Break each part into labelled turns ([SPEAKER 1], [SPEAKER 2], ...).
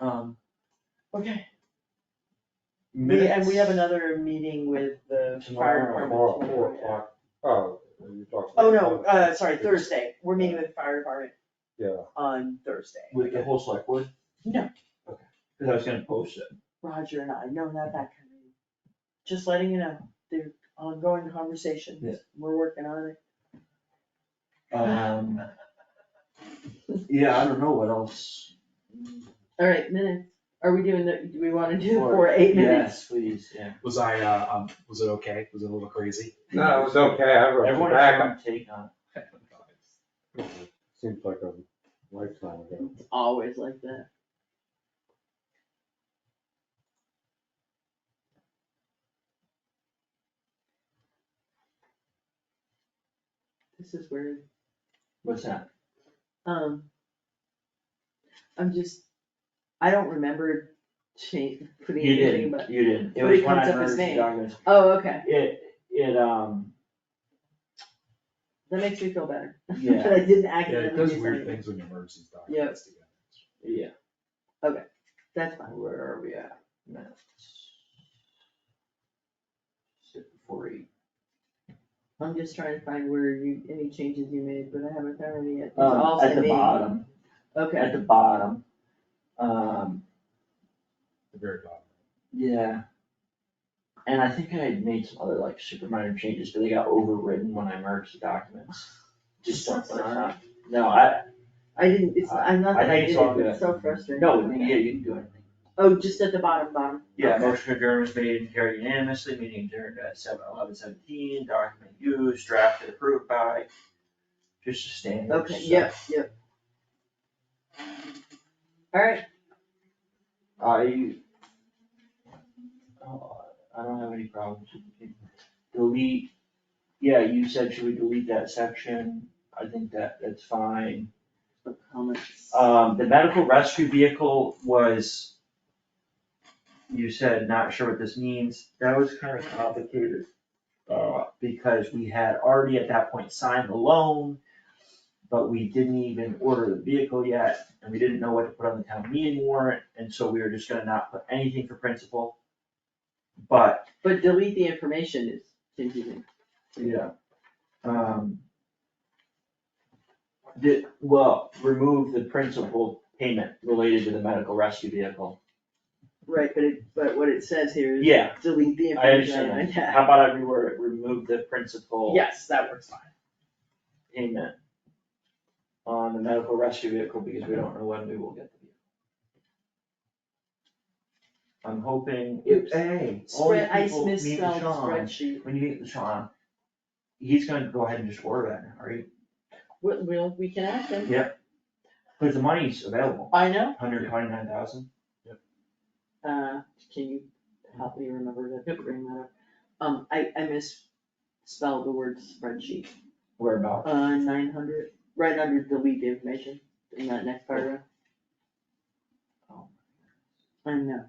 [SPEAKER 1] Um, okay. We,
[SPEAKER 2] Minutes.
[SPEAKER 1] and we have another meeting with the
[SPEAKER 2] Tomorrow,
[SPEAKER 1] fire department.
[SPEAKER 2] tomorrow,
[SPEAKER 1] tomorrow,
[SPEAKER 2] four
[SPEAKER 1] yeah.
[SPEAKER 2] o'clock. Oh, you talked.
[SPEAKER 1] Oh,
[SPEAKER 2] about-
[SPEAKER 1] no, uh, sorry, Thursday, we're meeting with the fire department
[SPEAKER 2] Yeah,
[SPEAKER 1] on Thursday.
[SPEAKER 3] With the whole select board?
[SPEAKER 1] No.
[SPEAKER 3] Okay, cause I was gonna post it.
[SPEAKER 1] Roger and I, no, not that kind of meeting. Just letting you know, they're ongoing conversations,
[SPEAKER 3] Yeah.
[SPEAKER 1] we're working on it.
[SPEAKER 3] Um. Yeah, I don't know what else.
[SPEAKER 1] All right, minutes, are we doing the, do we wanna do
[SPEAKER 3] Four.
[SPEAKER 1] for eight minutes?
[SPEAKER 3] Yes, please, yeah.
[SPEAKER 4] Was I, uh, um, was it okay? Was it a little crazy?
[SPEAKER 2] no, it was okay, I wrote
[SPEAKER 3] Everyone
[SPEAKER 2] it back,
[SPEAKER 3] has their own take on
[SPEAKER 2] seems like a lifetime ago.
[SPEAKER 1] It's Always like that. This is weird,
[SPEAKER 3] it. What's that?
[SPEAKER 1] um. I'm just, I don't remember change, putting
[SPEAKER 3] You
[SPEAKER 1] anything,
[SPEAKER 3] didn't,
[SPEAKER 1] but,
[SPEAKER 3] you didn't. It
[SPEAKER 1] But
[SPEAKER 3] was
[SPEAKER 1] it
[SPEAKER 3] when
[SPEAKER 1] comes
[SPEAKER 3] I
[SPEAKER 1] up as
[SPEAKER 3] merged the
[SPEAKER 1] name.
[SPEAKER 3] documents.
[SPEAKER 1] oh, okay,
[SPEAKER 3] It, it, um,
[SPEAKER 1] that makes me feel better.
[SPEAKER 3] Yeah.
[SPEAKER 1] That I didn't
[SPEAKER 4] Yeah,
[SPEAKER 1] accidentally
[SPEAKER 4] it
[SPEAKER 1] do
[SPEAKER 4] does
[SPEAKER 1] something.
[SPEAKER 4] weird things when you merge these documents together.
[SPEAKER 3] yeah,
[SPEAKER 1] That's fine,
[SPEAKER 3] where are we at? Minutes. Six before eight.
[SPEAKER 1] I'm just trying to find where you, any changes you made, but I haven't found any yet, it's all
[SPEAKER 3] Um, at
[SPEAKER 1] same
[SPEAKER 3] the
[SPEAKER 1] name.
[SPEAKER 3] bottom,
[SPEAKER 1] Okay,
[SPEAKER 3] at the bottom. Um,
[SPEAKER 4] The very bottom.
[SPEAKER 3] yeah. And I think I had made some other like super minor changes, but they got overwritten when I merged the documents. Just stuff like that. No, I,
[SPEAKER 1] I didn't, it's, I'm not
[SPEAKER 3] Uh, I
[SPEAKER 1] that I
[SPEAKER 3] think
[SPEAKER 1] did
[SPEAKER 3] it's
[SPEAKER 1] it,
[SPEAKER 3] all
[SPEAKER 1] but
[SPEAKER 3] good.
[SPEAKER 1] it's so frustrating.
[SPEAKER 3] no, yeah, you can do anything.
[SPEAKER 1] Oh, just at the bottom, bottom.
[SPEAKER 3] Yeah,
[SPEAKER 1] Okay.
[SPEAKER 3] motion adjourned was made and carried unanimously, meeting adjourned at seven eleven seventeen, document used, drafted, approved by. Just a standard.
[SPEAKER 1] Okay,
[SPEAKER 3] stuff.
[SPEAKER 1] yep, yep. Alright,
[SPEAKER 3] I. Oh, I don't have any problems. Delete, yeah, you said should we delete that section? I think that, that's fine.
[SPEAKER 1] comments.
[SPEAKER 3] Um, the medical rescue vehicle was, you said not sure what this means, that was kind of complicated. Uh, because we had already at that point signed the loan, but we didn't even order the vehicle yet, and we didn't know what to put on the town meeting warrant, and so we were just gonna not put anything for principal. But,
[SPEAKER 1] But delete the information is confusing.
[SPEAKER 3] yeah, um. Did, well, remove the principal payment related to the medical rescue vehicle.
[SPEAKER 1] Right, but it, but what it says here is
[SPEAKER 3] Yeah,
[SPEAKER 1] delete the
[SPEAKER 3] I
[SPEAKER 1] information.
[SPEAKER 3] understand.
[SPEAKER 1] Yeah.
[SPEAKER 3] that. How about I reword it, remove the principal
[SPEAKER 1] Yes, that works fine.
[SPEAKER 3] payment on the medical rescue vehicle because we don't know when we will get the vehicle. I'm hoping,
[SPEAKER 1] Oops.
[SPEAKER 3] hey, all you
[SPEAKER 1] Spread, I
[SPEAKER 3] people meet with
[SPEAKER 1] misspelled
[SPEAKER 3] Sean,
[SPEAKER 1] spreadsheet.
[SPEAKER 3] when you meet with Sean, he's gonna go ahead and just order that now, right?
[SPEAKER 1] We'll, we'll, we can ask them.
[SPEAKER 3] Cause the money's available,
[SPEAKER 1] I know,
[SPEAKER 3] hundred twenty-nine thousand,
[SPEAKER 1] uh, can you help me remember to bring that up? Um, I, I misspelled the word spreadsheet.
[SPEAKER 3] whereabouts?
[SPEAKER 1] Uh, nine hundred, right under delete the information in that next paragraph.
[SPEAKER 3] Oh.
[SPEAKER 1] I know.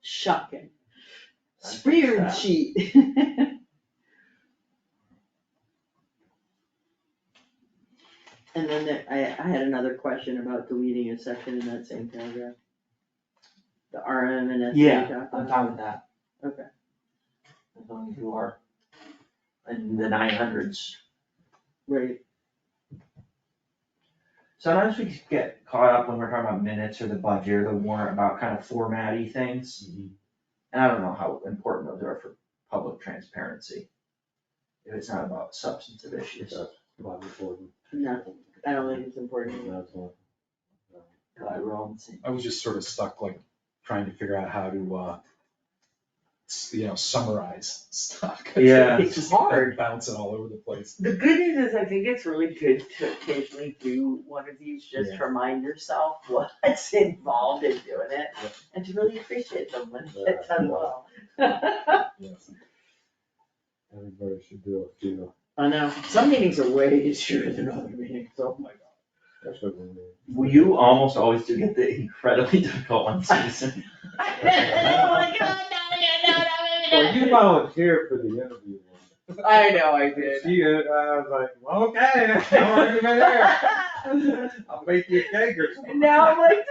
[SPEAKER 1] Shocking.
[SPEAKER 3] I fixed
[SPEAKER 1] Spirit
[SPEAKER 3] that.
[SPEAKER 1] sheet. And then there, I, I had another question about deleting a section in that same paragraph. The RM and S.
[SPEAKER 3] Yeah, I'm fine with that.
[SPEAKER 1] Okay.
[SPEAKER 3] As long as you are in the nine hundreds.
[SPEAKER 1] Right,
[SPEAKER 3] Sometimes we get caught up when we're talking about minutes or the budget or the warrant about kind of formatty things. And I don't know how important those are for public transparency. If it's not about substantive issues.
[SPEAKER 2] That's not important.
[SPEAKER 1] no, I don't think it's important.
[SPEAKER 2] That's not-
[SPEAKER 3] Glad we're all on the same.
[SPEAKER 4] I was just sort of stuck like trying to figure out how to, uh, s- you know, summarize stuff. 'cause
[SPEAKER 3] Yeah.
[SPEAKER 1] It's
[SPEAKER 4] just
[SPEAKER 1] hard.
[SPEAKER 4] Bouncing all over the place.
[SPEAKER 1] The good news is I think it's really good to occasionally do one of these, just to remind yourself what's involved in doing it.
[SPEAKER 4] Yeah.
[SPEAKER 1] And to really appreciate them when
[SPEAKER 2] Yeah.
[SPEAKER 1] it's done well.
[SPEAKER 4] Yes.
[SPEAKER 2] Everybody should do a few,
[SPEAKER 1] I know, some meetings are way easier than other meetings, oh my god.
[SPEAKER 2] that's what we need.
[SPEAKER 3] Well, you almost always do get the incredibly difficult ones, Susan.
[SPEAKER 1] Oh my god, no, no, no,
[SPEAKER 2] Well, you volunteered for the interview.
[SPEAKER 1] I know, I
[SPEAKER 2] She, did, I was like, well, okay, I'm already there,
[SPEAKER 1] did.
[SPEAKER 2] I'll make you a cake or something.
[SPEAKER 1] Now I'm like,